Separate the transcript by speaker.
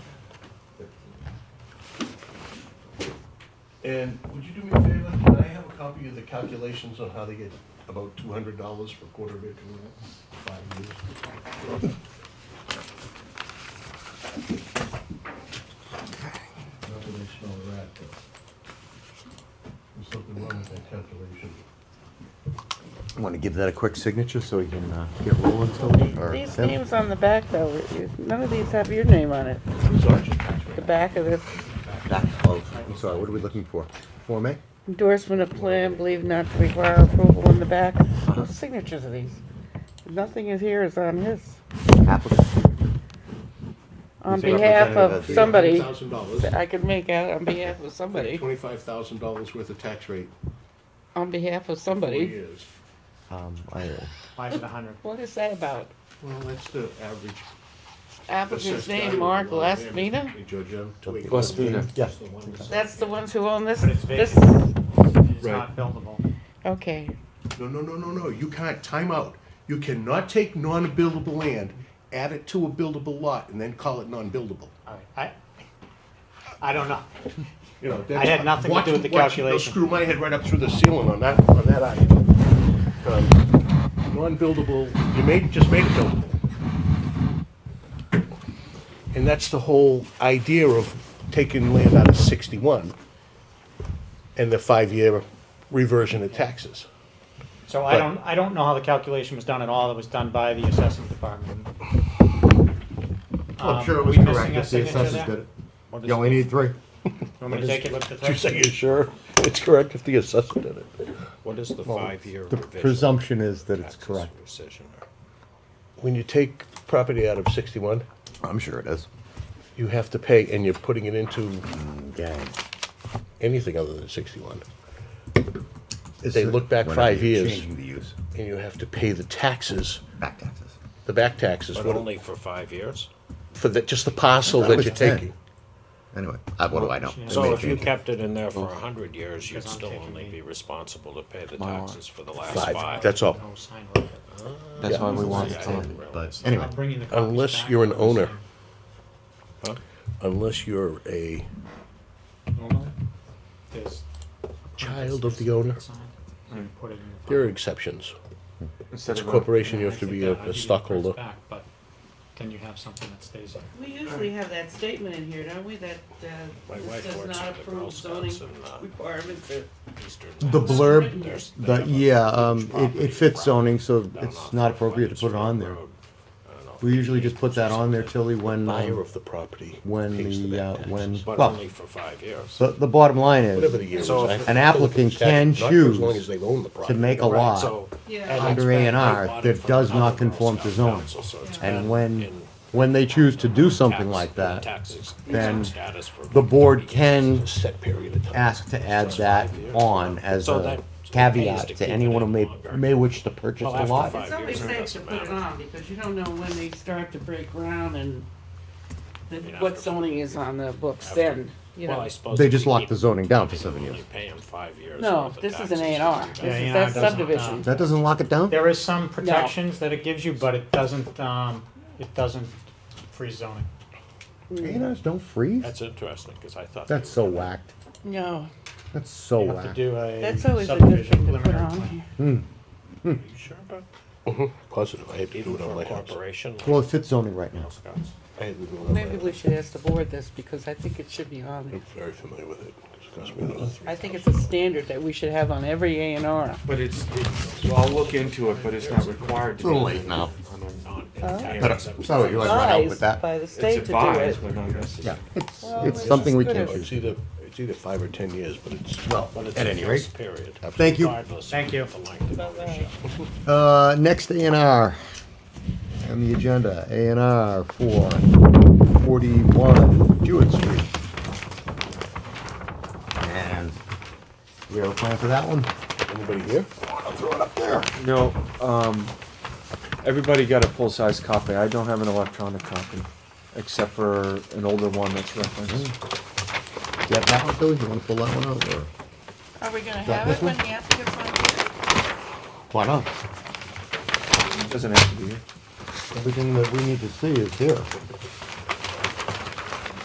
Speaker 1: And would you do me a favor, can I have a copy of the calculations on how they get about two hundred dollars for a quarter acre land, five years? Not that I smell a rat, but there's something wrong with that calculation.
Speaker 2: Want to give that a quick signature so we can uh, get rolling, Tony? or
Speaker 3: These
Speaker 2: Tim?
Speaker 3: names on the back though, you- none of these have your name on it. The back of this
Speaker 2: Back- Oh, I'm sorry, what are we looking for? Form A?
Speaker 3: endorsement of plan believed not to require approval in the back. Those are signatures of these. Nothing is here is on his.
Speaker 2: Applicant?
Speaker 3: On
Speaker 2: He's a
Speaker 3: behalf
Speaker 2: representative of
Speaker 3: of
Speaker 2: the-
Speaker 3: somebody,
Speaker 1: Thousand dollars,
Speaker 3: I could make out on behalf of somebody,
Speaker 1: twenty-five thousand dollars worth of tax rate,
Speaker 3: on behalf of
Speaker 1: four
Speaker 3: somebody.
Speaker 1: years.
Speaker 2: Um, I,
Speaker 4: Five to a hundred.
Speaker 3: What is that about?
Speaker 1: Well, that's the average.
Speaker 3: Applicant's
Speaker 1: assessed
Speaker 3: name,
Speaker 1: value
Speaker 3: Mark
Speaker 1: of the land.
Speaker 3: Lasmina?
Speaker 1: Hey, Giorgio, two acres.
Speaker 2: Lesmina, yeah.
Speaker 1: That's the one.
Speaker 3: That's the ones who own this,
Speaker 4: But it's
Speaker 3: this,
Speaker 4: vacant. It's
Speaker 1: Right.
Speaker 4: not buildable.
Speaker 3: okay.
Speaker 1: No, no, no, no, no, you can't, time out. You cannot take non-buildable land, add it to a buildable lot, and then call it non-buildable.
Speaker 4: All right. I, I don't know.
Speaker 1: You know, that's-
Speaker 4: had nothing to
Speaker 1: watch-
Speaker 4: do with the
Speaker 1: watch, they'll
Speaker 4: calculation.
Speaker 1: Screw my head right up through the ceiling on that, on that argument. Um, Non-buildable, you made, just made it buildable. And that's the whole idea of taking land out of sixty-one and the five-year reversion of taxes.
Speaker 4: So
Speaker 1: But-
Speaker 4: I don't, I don't know how the calculation was done at all. That was done by the assessing department.
Speaker 2: Oh, I'm sure it
Speaker 4: Um,
Speaker 2: was
Speaker 4: we missing
Speaker 2: correct
Speaker 4: a
Speaker 2: if the
Speaker 4: signature
Speaker 2: assessors
Speaker 4: there?
Speaker 2: did it.
Speaker 4: Or does-
Speaker 2: You only need three.
Speaker 4: You want me to take it with the
Speaker 1: Did you say
Speaker 4: thing?
Speaker 1: you're sure it's correct if the assessor did it?
Speaker 5: What is the five-year
Speaker 2: The
Speaker 5: revision?
Speaker 2: presumption is that it's
Speaker 5: Taxes
Speaker 2: correct.
Speaker 5: rescission.
Speaker 1: When you take property out of sixty-one,
Speaker 2: I'm sure it is.
Speaker 1: you have to pay, and you're putting it into Mm,
Speaker 2: Yeah.
Speaker 1: anything other than sixty-one. They look back five years,
Speaker 2: Changing the use,
Speaker 1: and you have to pay the taxes,
Speaker 2: back taxes.
Speaker 1: the back taxes,
Speaker 5: But
Speaker 1: what-
Speaker 5: only for five years?
Speaker 1: for the, just the parcel
Speaker 2: That
Speaker 1: that
Speaker 2: was
Speaker 1: you're
Speaker 2: ten.
Speaker 1: taking.
Speaker 2: Anyway, I- what do I know? They
Speaker 5: So
Speaker 2: may
Speaker 5: if you
Speaker 2: change it.
Speaker 5: kept it in there for a hundred years, you'd
Speaker 4: Because I'm
Speaker 5: still
Speaker 4: taking
Speaker 5: only
Speaker 4: the-
Speaker 5: be responsible to pay the
Speaker 6: My
Speaker 5: taxes for the last
Speaker 1: Five,
Speaker 5: five.
Speaker 1: that's all.
Speaker 4: No sign right there.
Speaker 6: That's why we want
Speaker 5: Yeah, I
Speaker 6: it
Speaker 5: didn't
Speaker 6: to,
Speaker 2: But
Speaker 5: realize that.
Speaker 2: anyway,
Speaker 4: I'm bringing the copies
Speaker 1: Unless
Speaker 4: back.
Speaker 1: you're an owner,
Speaker 5: Huh?
Speaker 1: unless you're a
Speaker 4: Owner? There's-
Speaker 1: child of the owner, Hmm.
Speaker 4: Sign. You put it in the-
Speaker 1: there are exceptions.
Speaker 6: instead
Speaker 1: It's a
Speaker 6: of, a-
Speaker 1: corporation, you have to
Speaker 4: I think
Speaker 1: be
Speaker 4: that- I
Speaker 1: a-
Speaker 4: think
Speaker 1: a
Speaker 4: it prints
Speaker 1: stockholder.
Speaker 4: back, But then you have something that stays there.
Speaker 3: We usually have that statement in here, don't we, that uh,
Speaker 5: My wife works for the Girl Scouts and, uh,
Speaker 3: requirements of
Speaker 5: Eastern
Speaker 2: the
Speaker 5: Mass.
Speaker 2: blurb,
Speaker 5: There's- they
Speaker 2: the,
Speaker 5: have a
Speaker 2: yeah,
Speaker 5: huge
Speaker 2: um, it,
Speaker 5: property
Speaker 2: it fits
Speaker 5: around
Speaker 2: zoning, so
Speaker 5: down
Speaker 2: it's
Speaker 5: off
Speaker 2: not
Speaker 5: of
Speaker 2: appropriate to put it on there.
Speaker 5: Road. I don't know if
Speaker 2: We
Speaker 5: you
Speaker 2: usually
Speaker 5: need
Speaker 2: just put that on there, Tilly, when,
Speaker 1: Buyer
Speaker 2: um,
Speaker 1: of the property
Speaker 2: when
Speaker 1: pays the
Speaker 2: the, uh,
Speaker 1: back
Speaker 2: when,
Speaker 1: taxes.
Speaker 5: But
Speaker 2: well,
Speaker 5: only for five years.
Speaker 2: the, the bottom line
Speaker 1: Whatever the
Speaker 2: is,
Speaker 1: year is.
Speaker 5: So
Speaker 1: I-
Speaker 5: if
Speaker 2: an applicant can
Speaker 1: Not for as long as
Speaker 2: choose
Speaker 1: they own the property.
Speaker 2: to make a
Speaker 5: Right,
Speaker 2: lot,
Speaker 5: so-
Speaker 3: Yeah.
Speaker 5: and
Speaker 2: Under
Speaker 5: it's been-
Speaker 2: A&R,
Speaker 5: they bought
Speaker 2: that
Speaker 5: it from
Speaker 2: does
Speaker 5: another
Speaker 2: not
Speaker 5: Girl
Speaker 2: conform to
Speaker 5: Scout
Speaker 2: zoning.
Speaker 5: council, so it's
Speaker 2: and
Speaker 5: been
Speaker 2: when,
Speaker 5: in
Speaker 2: when they choose to do something
Speaker 5: tax-
Speaker 2: like that,
Speaker 5: tax exempt
Speaker 2: then
Speaker 5: status for
Speaker 2: the board
Speaker 5: 30 years.
Speaker 2: can
Speaker 1: A set period of time.
Speaker 2: ask to add that on as
Speaker 5: So
Speaker 2: a
Speaker 5: that- so that pays to
Speaker 2: caveat
Speaker 5: keep
Speaker 2: to
Speaker 5: it
Speaker 2: anyone who
Speaker 5: in
Speaker 2: may,
Speaker 5: longer.
Speaker 2: may wish to purchase
Speaker 5: Well,
Speaker 2: the
Speaker 5: after
Speaker 2: lot.
Speaker 5: five
Speaker 3: It's always
Speaker 5: years, it
Speaker 3: safe to
Speaker 5: doesn't
Speaker 3: put it
Speaker 5: matter.
Speaker 3: on because you don't know when they start to break ground and the-
Speaker 5: mean,
Speaker 3: what
Speaker 5: after-
Speaker 3: zoning is on the books
Speaker 5: after-
Speaker 3: then, you
Speaker 5: Well,
Speaker 3: know.
Speaker 5: I suppose
Speaker 2: They
Speaker 5: if
Speaker 2: just
Speaker 5: you
Speaker 2: locked
Speaker 5: keep
Speaker 2: the
Speaker 5: it,
Speaker 2: zoning down for
Speaker 5: you
Speaker 2: seven
Speaker 5: only
Speaker 2: years.
Speaker 5: pay 'em five years.
Speaker 3: No,
Speaker 5: worth of
Speaker 3: this is
Speaker 5: taxes
Speaker 3: an A and
Speaker 5: to
Speaker 3: R.
Speaker 5: do that.
Speaker 4: Yeah,
Speaker 3: This
Speaker 4: yeah,
Speaker 3: is,
Speaker 4: it
Speaker 3: that's
Speaker 4: doesn't, uh,
Speaker 3: subdivision.
Speaker 2: That doesn't lock it down?
Speaker 4: There is some protections that it gives you, but it doesn't, um, it doesn't freeze zoning.
Speaker 2: A&Rs don't freeze?
Speaker 5: That's interesting, because I thought.
Speaker 2: That's
Speaker 5: they
Speaker 2: so
Speaker 5: were-
Speaker 2: whacked.
Speaker 3: No,
Speaker 2: That's so
Speaker 4: You have to
Speaker 2: whacked.
Speaker 4: do a
Speaker 3: that's always a good
Speaker 4: subdivision
Speaker 3: thing to put
Speaker 4: preliminary
Speaker 3: on
Speaker 4: plan.
Speaker 3: here.
Speaker 5: Are you sure about,
Speaker 1: Positive, I had to do
Speaker 5: even
Speaker 1: it on
Speaker 5: for
Speaker 1: my
Speaker 5: a
Speaker 1: house.
Speaker 5: corporation? like
Speaker 2: Well, it fits zoning right now.
Speaker 5: Girl Scouts?
Speaker 1: I had to do it on my
Speaker 3: Maybe we
Speaker 1: house.
Speaker 3: should ask the board this because I think it should be on there.
Speaker 1: I'm very familiar with it. It's cost me another three
Speaker 3: I think it's a standard that we should have on every A and R.
Speaker 6: but it's, it's, well, I'll look into it, but it's not required to.
Speaker 2: It's a little
Speaker 6: be
Speaker 2: late now.
Speaker 6: on a- on a-
Speaker 2: Better-
Speaker 5: Non-tax exempt
Speaker 2: sorry, you
Speaker 5: tax.
Speaker 2: like- run out with
Speaker 3: Advised
Speaker 2: that.
Speaker 3: By the
Speaker 6: It's
Speaker 3: state to do it.
Speaker 6: advised, but not necessary.
Speaker 3: Well,
Speaker 2: It's
Speaker 3: it's
Speaker 2: something we
Speaker 3: good
Speaker 2: can't
Speaker 3: if-
Speaker 2: choose.
Speaker 1: It's either, it's either five or 10 years, but it's.
Speaker 5: But it's
Speaker 2: At
Speaker 5: a
Speaker 2: any
Speaker 5: fixed period.
Speaker 2: Thank you.
Speaker 5: regardless of
Speaker 4: Thank you.
Speaker 5: the length of
Speaker 3: Bye-bye.
Speaker 5: ownership.
Speaker 2: Uh, next A and R on the agenda, A and R for forty-one Jewett Street. And we have a plan for that one?
Speaker 1: Anybody here? I'll throw it up there.
Speaker 6: No, um, everybody got a full-size copy, I don't have an electronic copy, except for an older one that's referenced.
Speaker 2: You have that one, Billy? You wanna pull that one out or?
Speaker 3: Are we gonna
Speaker 2: that
Speaker 3: have
Speaker 2: this
Speaker 3: it when
Speaker 2: one?
Speaker 3: the applicant's on here?
Speaker 2: Why not?
Speaker 6: Doesn't have to be here.
Speaker 2: Everything that we need to see is here.